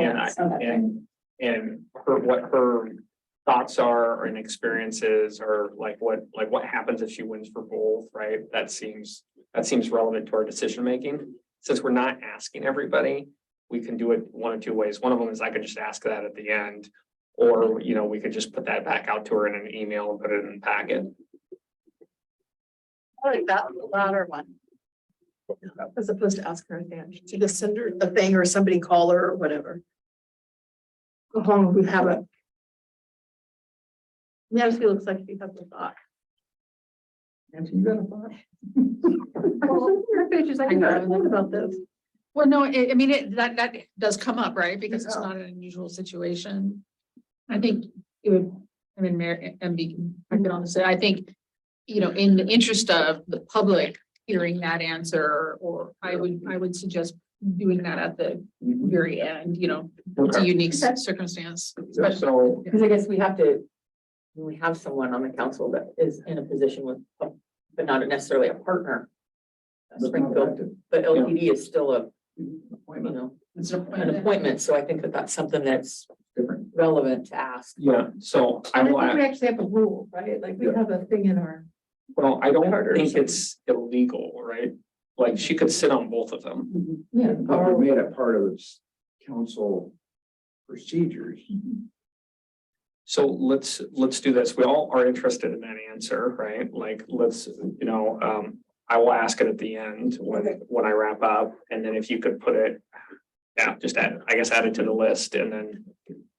and I, and, and her, what her thoughts are and experiences or like what, like what happens if she wins for both, right? That seems, that seems relevant to our decision making. Since we're not asking everybody, we can do it one of two ways. One of them is I could just ask that at the end. Or, you know, we could just put that back out to her in an email and put it in the packet. I like that latter one. As opposed to ask her at the end, to just send her the thing or somebody call her or whatever. Go home, we have a. Yeah, she looks like she has a thought. And you got a thought? Her face is like, "You know, I thought about this. Well, no, I, I mean, it, that, that does come up, right? Because it's Yeah. not an unusual situation. I think it would, I mean, Mayor, MB, I can honestly, say, I think, you know, in the interest of the public hearing that answer, or I would, I would suggest doing that at the very end, you know, it's a unique Okay. circumstance. So, Because I guess we have to, when we have someone on the council that is in a position with, a- but not necessarily a partner. uh, Springfield, but LPD is still a, you know, It's an an appointment. appointment, so I think that that's something that's Different. relevant to ask. yeah, so I And will, I think ask- we actually have a rule, right? Like we have a thing in our. well, I don't Harder or think something. it's illegal, right? Like she could sit on both of them. Yeah. But we made it part of its council procedures. So let's, let's do this. We all are interested in that answer, right? Like, let's, you know, um, I will ask it at the end when, when I wrap up. And then if you could put it, yeah, just add, I guess add it to the list and then,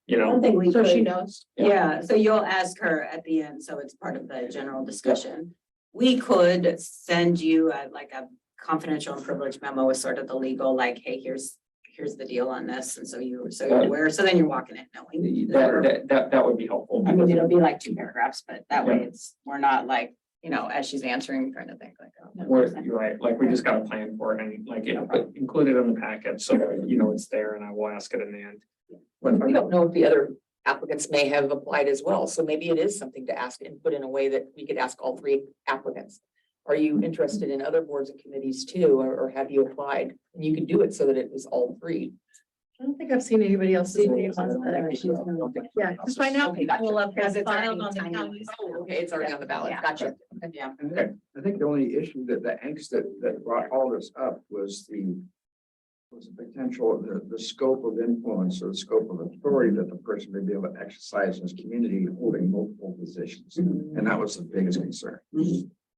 you I know, don't think we So she could, knows. Yeah. yeah, so you'll ask her at the end, so it's part of the general discussion. We could send you a- like a confidential and privileged memo with sort of the legal, like, hey, here's, here's the deal on this, and so you, so you're Right. aware, so then you're walking it knowing. that, that, that, that would be helpful. I mean, it'll be like two paragraphs, but that way it's, we're not like, you know, as she's answering, trying to think like. oh, no, Where, there's that. you're right, like, we just got a plan for it and like, yeah, but include it in the packet, so, you know, it's there and I will ask it in the end. We don't know if the other applicants may have applied as well, so maybe it is something to ask and put in a way that we could ask all three applicants. Are you interested in other boards and committees too, or, or have you applied? And you could do it so that it was all three. I don't think I've seen anybody else's name on that. Yeah, Yeah, because right now people have Because it's filed already on the tiny. county's. Okay, it's already on the ballot, Yeah. gotcha. Yeah, I think the only issue that, the angst that, that brought all this up was the was the potential, the, the scope of influence or the scope of authority that the person may be able to exercise in his community holding multiple positions. And that was the biggest concern. You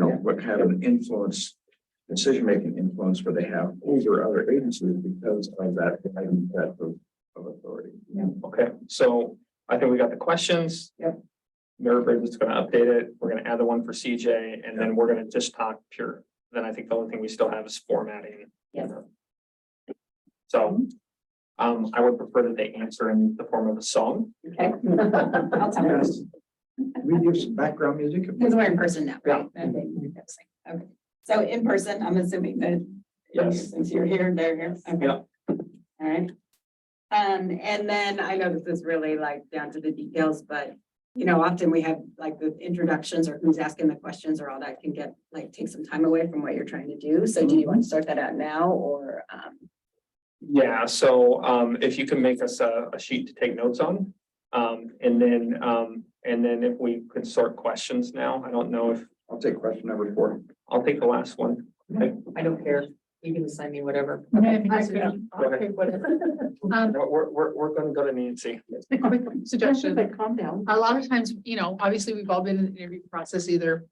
know, what have an influence, decision-making influence where they have over other agencies because of that, that of, of authority. Okay, so I think we got the questions. Yep. Mayor Braden's gonna update it. We're gonna add the one for CJ and then we're gonna just talk pure. Then I think the only thing we still have is formatting. Yes. So, um, I would prefer that they answer in the form of a song. okay. I'll tell her, Yes. We do some background music. because we're in person now, right? Yeah. Okay, okay. So in person, I'm assuming that Yes. Since you're here, they're here. Okay. Yeah. All right. Um, and then I know this is really like down to the details, but you know, often we have like the introductions or who's asking the questions or all that can get like take some time away from what you're trying to do. So do you want Mm-hmm. to start that out now or um? Yeah, so, um, if you can make us a, a sheet to take notes on. Um, and then, um, and then if we could sort questions now, I don't know if, I'll take question number four. I'll take the last one. I don't care, you can assign me whatever. Okay, I that's see. good. I'll take whatever. Um, We're, we're- we're, we're gonna go to Nancy. quick suggestion. Like, Calm down. a lot of times, you know, obviously, we've all been in the interview process, either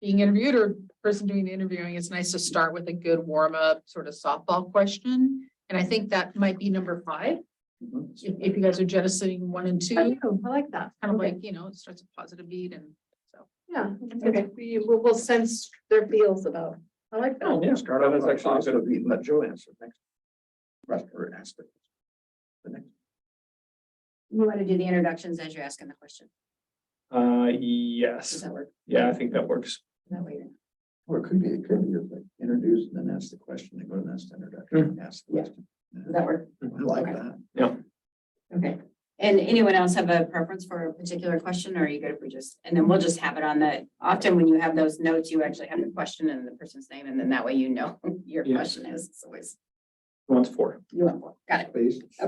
being interviewed or person doing the interviewing. It's nice to start with a good warm-up sort of softball question. And I think that might be number five, Mhm. if, if you guys are jettisoning one and two, I kind know, I like that. of like, you know, it starts a positive beat and so. Yeah, Mm-hmm. okay, we will, we'll sense their feels about, I like that. yeah. Start That off is like actually a also be, let Joe answer next. Rest or ask the. the next. You want to do the introductions as you're asking the question? Uh, Does yes, that work? yeah, I think that works. That way you're- Or it could be, it could be like introduce and then ask the question, then go to the next introduction, and ask the Yeah. question. Does that work? I like that. Okay. And anyone else have a preference for a particular question or are you good if we just, and then we'll just have it on the, often when you have those notes, you actually have the question and the person's name and then that way you know your Yeah. question is, it's always, One's four. you want more. Got it. Please.